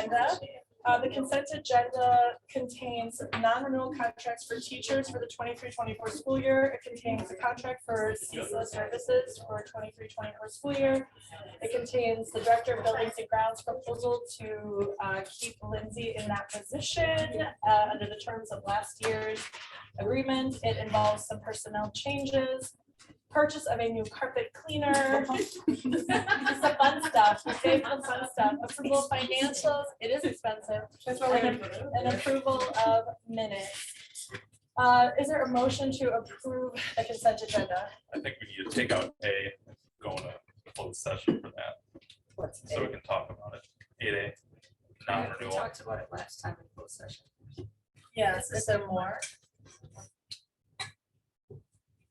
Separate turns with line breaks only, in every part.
agenda. Uh, the consent agenda contains non-renewal contracts for teachers for the 23-24 school year. It contains a contract for CISA services for 23-24 school year. It contains the director of buildings and grounds proposal to, uh, keep Lindsay in that position, uh, under the terms of last year's agreement. It involves some personnel changes, purchase of a new carpet cleaner, it's the fun stuff, we save the fun stuff, approval financials, it is expensive,
That's
why we- and approval of minutes. Uh, is there a motion to approve the consent agenda?
I think we need to take out A, go into closed session for that,
What's
so we can talk about it. Eight A,
We
non-renewal.
talked about it last time in closed session.
Yes, is there more?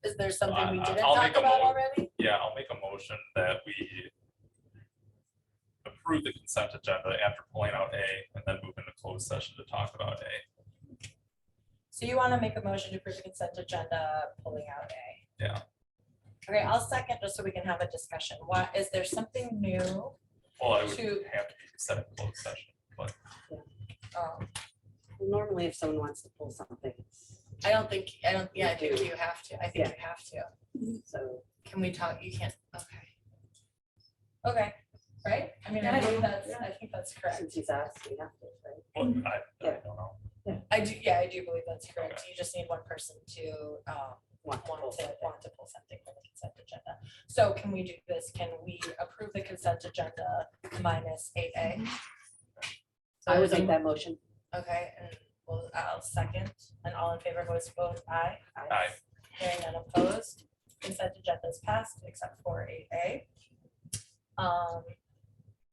Is there something we
I-
didn't
I'll
talk
make a
about
mo-
already?
Yeah, I'll make a motion that we approve the consent agenda after pulling out A and then move into closed session to talk about A.
So you wanna make a motion to approve the consent agenda, pulling out A?
Yeah.
Okay, I'll second just so we can have a discussion. What, is there something new?
Well, it would
To-
have to be set in closed session, but
Um,
Normally, if someone wants to pull something,
I don't think, I don't, yeah, I
You
think
do.
you have to, I think you have to.
so
Can we talk, you can't, okay. Okay, right? I mean, I
Yeah.
think that's, I think that's correct.
since he's asked, we have to, right?
but
Mm-hmm.
I, I
Yeah.
don't know.
I do, yeah, I do believe that's correct. You just need one person to, um,
Want to pull
want to,
something.
want to pull something from the consent agenda. So can we do this? Can we approve the consent agenda minus eight A?
I would make that motion.
Okay, and we'll, I'll second, and all in favor, voice vote aye.
Aye.
Hearing none opposed, consent agenda is passed except for eight A. Um,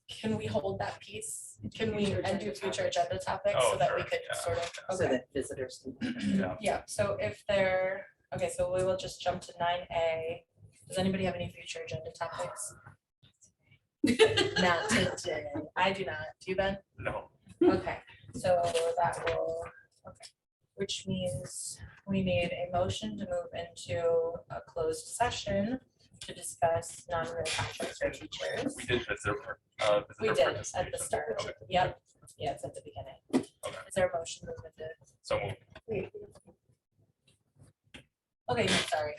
can we hold that piece? Can we,
Future
and do
agenda
future agenda topics so
Oh,
that we
sure,
could
yeah.
sort of,
So
okay,
that visitors can.
Yeah,
yeah, so if there, okay, so we will just jump to nine A. Does anybody have any future agenda topics? Not today, I do not, do you, Ben?
no,
Okay, so that will, okay, which means we need a motion to move into a closed session to discuss non-real contracts for teachers.
we did visitor, uh,
We
visitor
did at the
participation.
start,
Okay,
yep, yeah, it's at the beginning.
Okay.
Is there a motion to move into,
So moved.
okay, no, sorry,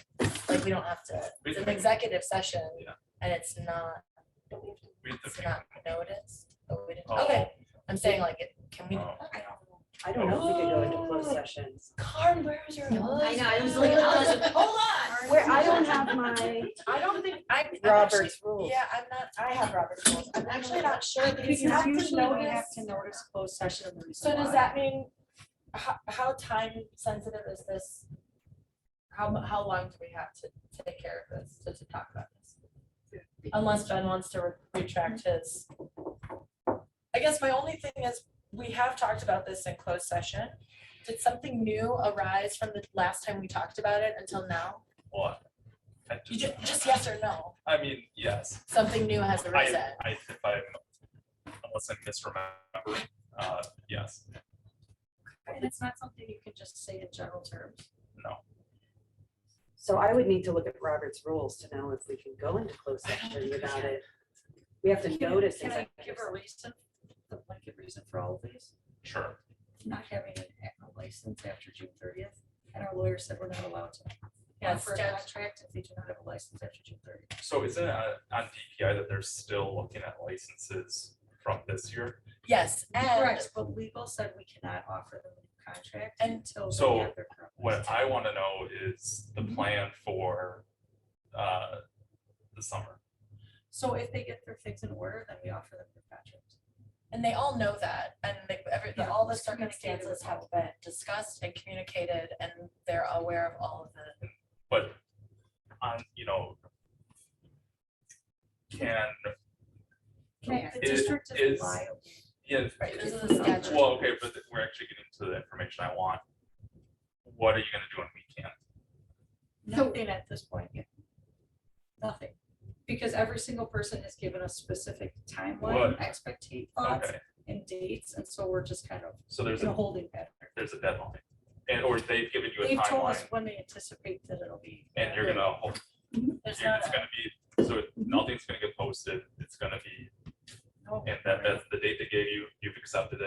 like, we don't have to, it's an executive session,
Yeah.
and it's not,
we did
it's
the-
not noticed, but we didn't,
Oh,
okay, I'm saying like, it can we?
Oh.
I don't know if we could go into closed sessions.
Karen, where's your?
I know, I was like, I was like, hold on.
Where I don't have my
I don't think, I. I'm actually-
Robert's rules.
Yeah, I'm not, I have Robert's rules. I'm actually not sure because
Because
you have to
usually we have
notice.
to notice closed session. and the reason
So does
why.
that mean, how, how time sensitive is this? How, mu- how long do we have to take care of this, to, to talk about this? Unless Ben wants to re- retract his. I guess my only thing is, we have talked about this in closed session. Did something new arise from the last time we talked about it until now?
What? I
You ju-
just-
just yes or no,
I mean, yes.
something new has arisen.
I, I, if I'm, unless I misremember, uh, yes,
And it's not something you can just say in general terms.
no.
So I would need to look at Robert's rules to know if we can go into closed session without it. We have to
Can I-
notice.
Can I
executive
give a reason, the blanket reason for all of these?
Sure.
Not having an a license after June thirtieth, and our lawyer said we're not allowed to.
Yeah,
offer a
statute.
Contract if they do not have a license after June thirtieth.
So is it on on DPI that they're still looking at licenses from this year?
Yes, and
Correct, but legal said we cannot offer them a new contract
And-
until. they
So
have their current
What
license.
I want to know is the
Mm-hmm.
plan for, uh, the summer.
So if they get their things in order, then we offer them the contract.
and they all know that, and they, every,
Yeah,
all the
it's communicated
circumstances
with
have
all.
been discussed and communicated, and they're aware of all of the.
But on, you know, can,
Can The
It
district
is-
is liable.
yeah,
Right, this is
It's
the
not
statute.
well, okay, but we're actually getting to the information I want. What are you gonna do when we can't?
Nothing at this point yet. Nothing. Because every single person has given us specific timeline,
What?
expectate thoughts
Okay,
and dates, and so we're just kind of
so there's
in a
a,
holding pattern.
there's a deadline. And, or they've given you a
They've told us
timeline
when they anticipate that it'll be.
and you're gonna hold
There's
And
not
it's
a-
gonna be, so nothing's gonna get posted, it's gonna be,
No.
and that, that's the date they gave you, you've accepted it.